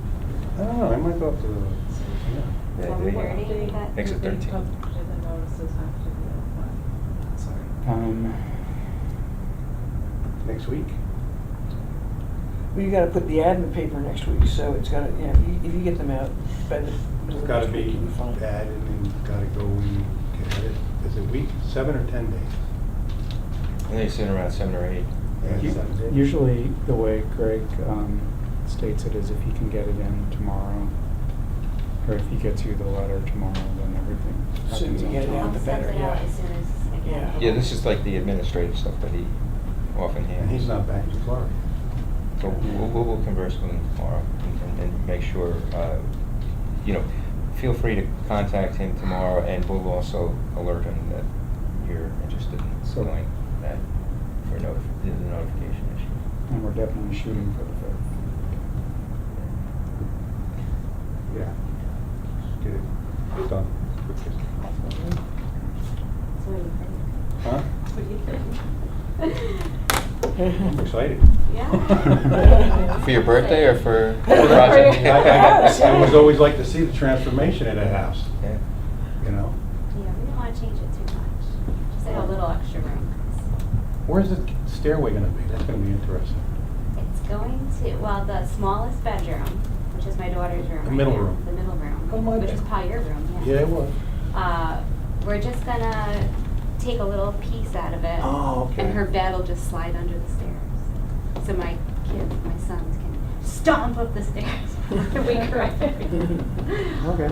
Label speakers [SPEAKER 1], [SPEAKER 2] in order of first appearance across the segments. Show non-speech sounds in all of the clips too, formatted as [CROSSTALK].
[SPEAKER 1] I don't know, Oh, I might go up to the, yeah.
[SPEAKER 2] Yeah,
[SPEAKER 3] One
[SPEAKER 2] there you go.
[SPEAKER 3] thirty, is that?
[SPEAKER 2] Makes it
[SPEAKER 4] Do you think
[SPEAKER 2] 13.
[SPEAKER 4] public- do the notices have to be applied? Sorry.
[SPEAKER 5] Um,
[SPEAKER 1] next week.
[SPEAKER 6] Well, you gotta put the ad in the paper next week, so it's gotta, you know, if you- if you get them out by the. middle
[SPEAKER 1] It's
[SPEAKER 6] of
[SPEAKER 1] gotta
[SPEAKER 6] next
[SPEAKER 1] be
[SPEAKER 6] week, you'll fine.
[SPEAKER 1] bad and then you've gotta go and get it. Is it week, seven or 10 days?
[SPEAKER 2] I think it's in around seven or eight.
[SPEAKER 1] Yeah, seven days.
[SPEAKER 5] Usually, the way Greg um, states it is if he can get it in tomorrow, or if he gets you the letter tomorrow, then everything
[SPEAKER 6] So
[SPEAKER 5] happens
[SPEAKER 6] you
[SPEAKER 5] on
[SPEAKER 6] get it
[SPEAKER 5] time.
[SPEAKER 6] out the better,
[SPEAKER 3] I'll
[SPEAKER 6] yeah.
[SPEAKER 3] send it out as soon as I
[SPEAKER 6] Yeah.
[SPEAKER 3] can.
[SPEAKER 2] Yeah, this is like the administrative stuff that he often
[SPEAKER 1] And he's
[SPEAKER 2] handles.
[SPEAKER 1] not back to Florida.
[SPEAKER 2] So we'll, we'll- we'll converse with him tomorrow and- and, and make sure, uh, you know, feel free to contact him tomorrow and we'll also alert him that you're interested in
[SPEAKER 5] So-
[SPEAKER 2] doing that for notif- the notification issue.
[SPEAKER 5] And we're definitely shooting for the fifth.
[SPEAKER 1] Yeah. Just Get it done. quick as possible.
[SPEAKER 4] So what do
[SPEAKER 3] [LAUGHS]
[SPEAKER 4] you
[SPEAKER 1] Huh?
[SPEAKER 4] think? What do you think?
[SPEAKER 1] I'm excited. [LAUGHS]
[SPEAKER 3] Yeah.
[SPEAKER 2] For your birthday or for
[SPEAKER 6] For your
[SPEAKER 2] the project?
[SPEAKER 1] I- I I was always like to see the transformation at a house,
[SPEAKER 2] Yeah.
[SPEAKER 1] you know?
[SPEAKER 3] Yeah, we don't wanna change it too much, just add a little extra room.
[SPEAKER 1] Where's the stairway gonna be? That's gonna be interesting.
[SPEAKER 3] It's going to, well, the smallest bedroom, which is my daughter's room.
[SPEAKER 1] The
[SPEAKER 3] right
[SPEAKER 1] middle
[SPEAKER 3] now,
[SPEAKER 1] room.
[SPEAKER 3] The middle room.
[SPEAKER 1] Oh, my
[SPEAKER 3] Which is
[SPEAKER 1] bad.
[SPEAKER 3] probably your room,
[SPEAKER 1] Yeah,
[SPEAKER 3] yeah.
[SPEAKER 1] it was.
[SPEAKER 3] Uh, we're just gonna take a little piece out of it.
[SPEAKER 6] [LAUGHS] Oh, okay.
[SPEAKER 3] And her bed will just slide under the stairs. So my kids, my sons can stomp up the stairs [LAUGHS] before we correct everything.
[SPEAKER 6] Okay.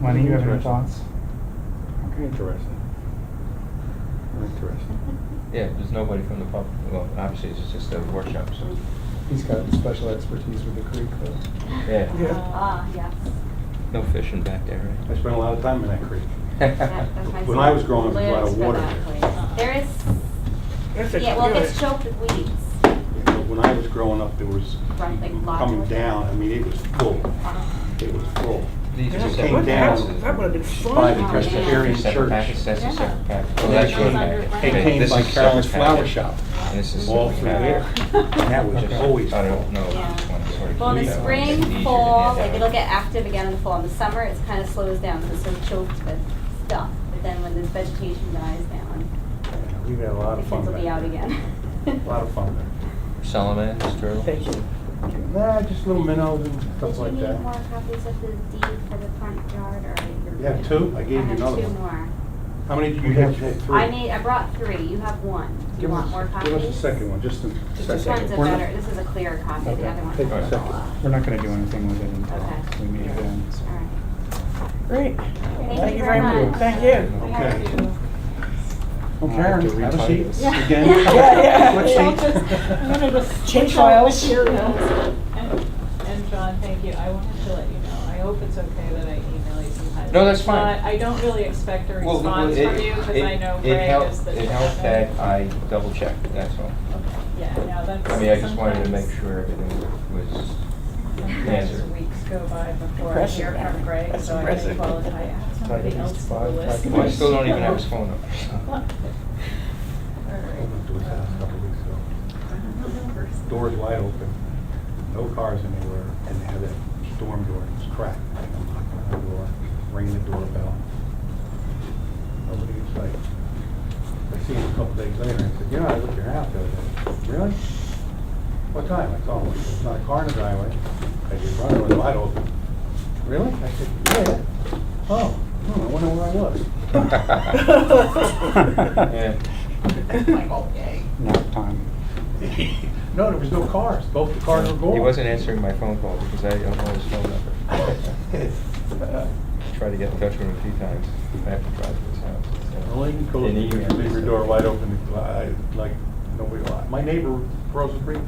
[SPEAKER 5] Lenny, you have any
[SPEAKER 1] Interesting.
[SPEAKER 5] thoughts? Okay.
[SPEAKER 1] Interesting. Interesting.
[SPEAKER 2] Yeah, there's nobody from the public, well, obviously it's just a workshop, so,
[SPEAKER 5] He's got special expertise with the creek, though.
[SPEAKER 2] yeah.
[SPEAKER 3] Ah, yes.
[SPEAKER 2] No fishing back there,
[SPEAKER 1] I spent a lot of time in that creek.
[SPEAKER 3] That- that's
[SPEAKER 2] [LAUGHS]
[SPEAKER 3] my
[SPEAKER 2] right?
[SPEAKER 1] When I was
[SPEAKER 3] son
[SPEAKER 1] growing up, there was a lot of
[SPEAKER 3] lives for
[SPEAKER 1] water
[SPEAKER 3] that
[SPEAKER 1] there.
[SPEAKER 3] place. There is,
[SPEAKER 6] That's a
[SPEAKER 3] yeah, well, it gets
[SPEAKER 6] good-
[SPEAKER 3] choked with weeds.
[SPEAKER 1] But When I was growing up, there was,
[SPEAKER 3] Right, like lots
[SPEAKER 1] coming
[SPEAKER 3] of-
[SPEAKER 1] down, I mean, it was full. It was full.
[SPEAKER 2] These
[SPEAKER 6] Yeah,
[SPEAKER 2] two
[SPEAKER 6] what
[SPEAKER 2] separate
[SPEAKER 6] the hell?
[SPEAKER 2] packages.
[SPEAKER 6] That would've been
[SPEAKER 1] By
[SPEAKER 6] fun.
[SPEAKER 1] the
[SPEAKER 3] Oh,
[SPEAKER 1] Presbyterian
[SPEAKER 2] Separate package,
[SPEAKER 1] Church.
[SPEAKER 2] That's a separate package. Oh,
[SPEAKER 1] And
[SPEAKER 2] that's
[SPEAKER 1] that
[SPEAKER 2] your
[SPEAKER 1] came-
[SPEAKER 2] package.
[SPEAKER 1] It
[SPEAKER 2] Okay,
[SPEAKER 1] came
[SPEAKER 2] this
[SPEAKER 1] by
[SPEAKER 2] is a separate
[SPEAKER 1] Carol's Flower
[SPEAKER 2] package.
[SPEAKER 1] Shop,
[SPEAKER 2] And This is.
[SPEAKER 1] all
[SPEAKER 2] separate
[SPEAKER 1] through
[SPEAKER 2] package.
[SPEAKER 1] there. And that was just
[SPEAKER 2] Okay.
[SPEAKER 1] always
[SPEAKER 2] I don't
[SPEAKER 1] full.
[SPEAKER 2] know.
[SPEAKER 3] Yeah.
[SPEAKER 2] Just wanna sort of
[SPEAKER 3] Well, in
[SPEAKER 2] keep
[SPEAKER 3] the
[SPEAKER 2] that one.
[SPEAKER 3] spring,
[SPEAKER 2] It's easier to
[SPEAKER 3] fall,
[SPEAKER 2] get
[SPEAKER 3] like
[SPEAKER 2] down.
[SPEAKER 3] it'll get active again in the fall. In the summer, it kind of slows down, so it's sort of choked with stuff. But then when this vegetation dies down,
[SPEAKER 1] We had a
[SPEAKER 3] the
[SPEAKER 1] lot of
[SPEAKER 3] kids
[SPEAKER 1] fun
[SPEAKER 3] will
[SPEAKER 1] back
[SPEAKER 3] be out
[SPEAKER 1] there.
[SPEAKER 3] again.
[SPEAKER 1] A lot of fun there.
[SPEAKER 2] Salamanders, turtles.
[SPEAKER 6] Thank you.
[SPEAKER 1] Nah, just little minnows and
[SPEAKER 3] Did
[SPEAKER 1] stuff
[SPEAKER 3] you
[SPEAKER 1] like
[SPEAKER 3] need more
[SPEAKER 1] that.
[SPEAKER 3] copies of the deed for the front yard or?
[SPEAKER 1] You have two? I gave you another
[SPEAKER 3] I have two
[SPEAKER 1] one.
[SPEAKER 3] more.
[SPEAKER 1] How many did you
[SPEAKER 5] We
[SPEAKER 1] get?
[SPEAKER 5] have-
[SPEAKER 1] Three.
[SPEAKER 3] I need, I brought three. You have one. Do you
[SPEAKER 1] Give
[SPEAKER 3] want
[SPEAKER 1] us-
[SPEAKER 3] more copies?
[SPEAKER 1] Give us a second one, just a
[SPEAKER 3] This
[SPEAKER 1] second.
[SPEAKER 3] one's a
[SPEAKER 5] We're not-
[SPEAKER 3] better, this is a clearer copy. The
[SPEAKER 5] Okay,
[SPEAKER 3] other one's a
[SPEAKER 1] take a
[SPEAKER 3] little,
[SPEAKER 1] second.
[SPEAKER 3] uh,
[SPEAKER 5] We're not gonna do anything with it
[SPEAKER 3] Okay.
[SPEAKER 5] until we meet again. so-
[SPEAKER 3] All right.
[SPEAKER 6] Great.
[SPEAKER 3] Thank you very much.
[SPEAKER 6] Thank you.
[SPEAKER 4] How are
[SPEAKER 1] Okay.
[SPEAKER 4] you?
[SPEAKER 1] Oh,
[SPEAKER 5] I'll
[SPEAKER 1] Karen,
[SPEAKER 5] have to
[SPEAKER 1] have a
[SPEAKER 5] retie
[SPEAKER 1] seat.
[SPEAKER 5] this.
[SPEAKER 3] Yeah.
[SPEAKER 1] Again?
[SPEAKER 3] [LAUGHS]
[SPEAKER 6] Yeah, yeah.
[SPEAKER 1] What
[SPEAKER 6] I'll
[SPEAKER 1] seat?
[SPEAKER 6] just- I'm gonna just change files.
[SPEAKER 4] And, and John, thank you, I wanted to let you know, I hope it's okay that I email you sometimes.
[SPEAKER 2] No, that's fine.
[SPEAKER 4] But I don't really expect a
[SPEAKER 2] Well,
[SPEAKER 4] response
[SPEAKER 2] it-
[SPEAKER 4] from you, because
[SPEAKER 2] it-
[SPEAKER 4] I know
[SPEAKER 2] it
[SPEAKER 4] Greg
[SPEAKER 2] helped-
[SPEAKER 4] is the.
[SPEAKER 2] It helped
[SPEAKER 4] chairman.
[SPEAKER 2] that I double checked, that's all.
[SPEAKER 4] Okay, Yeah, now that's.
[SPEAKER 2] I mean, I just wanted to make
[SPEAKER 4] sometimes-
[SPEAKER 2] sure everything was
[SPEAKER 4] Sometimes
[SPEAKER 2] answered.
[SPEAKER 4] weeks go by before I
[SPEAKER 6] Impressive,
[SPEAKER 4] hear from
[SPEAKER 6] man.
[SPEAKER 4] Greg,
[SPEAKER 6] That's
[SPEAKER 4] so I may
[SPEAKER 6] impressive.
[SPEAKER 4] qualify, have somebody
[SPEAKER 5] Type
[SPEAKER 4] else
[SPEAKER 5] is
[SPEAKER 4] on the
[SPEAKER 5] five,
[SPEAKER 4] list.
[SPEAKER 5] type
[SPEAKER 2] Well, I still don't even have his phone
[SPEAKER 4] [LAUGHS] All
[SPEAKER 2] number.
[SPEAKER 4] right.
[SPEAKER 1] Doors wide open, no cars anywhere, and they have that storm door, and it's cracked. Like, I'm knocking on the door, ringing the doorbell. Nobody was like, I see him a couple days later, and I said, you know, I looked at your house the other day. Really? What time? I told him, there's not a car in the driveway. I just run, it was wide open. Really? I said, yeah. Oh, hmm, I wonder where I was.
[SPEAKER 2] Yeah.
[SPEAKER 5] [LAUGHS]
[SPEAKER 1] [LAUGHS]
[SPEAKER 3] [LAUGHS]
[SPEAKER 1] Like,
[SPEAKER 5] Oh,
[SPEAKER 1] okay.
[SPEAKER 5] Nap time.
[SPEAKER 1] No, there was no cars, both the cars were gone.
[SPEAKER 2] He wasn't
[SPEAKER 1] [LAUGHS]
[SPEAKER 2] answering my phone call because I don't know his phone number. Tried to get in touch with him a few times after driving to his house. so-
[SPEAKER 1] Only because
[SPEAKER 2] And
[SPEAKER 1] you
[SPEAKER 2] email.
[SPEAKER 1] leave your door wide open, I- like, nobody, my neighbor, Rose Green.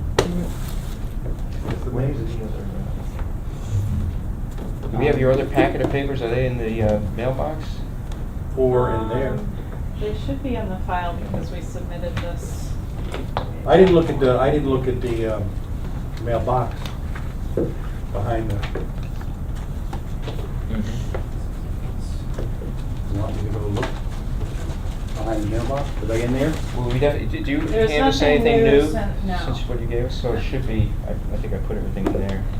[SPEAKER 1] It's amazing.
[SPEAKER 2] Do we have your other packet of papers? Are they in the uh, mailbox?
[SPEAKER 1] Four in there.
[SPEAKER 4] Um, They should be on the file because we submitted this.
[SPEAKER 1] I didn't look at the, I didn't look at the um, mailbox behind the,
[SPEAKER 4] Mm-hmm.
[SPEAKER 1] you want me to go look behind the mailbox? Are they in there?
[SPEAKER 2] Well, we definitely, did you
[SPEAKER 4] There's
[SPEAKER 2] hand us
[SPEAKER 4] nothing
[SPEAKER 2] anything
[SPEAKER 4] new
[SPEAKER 2] new?
[SPEAKER 4] sent- no.
[SPEAKER 2] Oh, Since what you gave us, so it should be, I I think I put everything in there.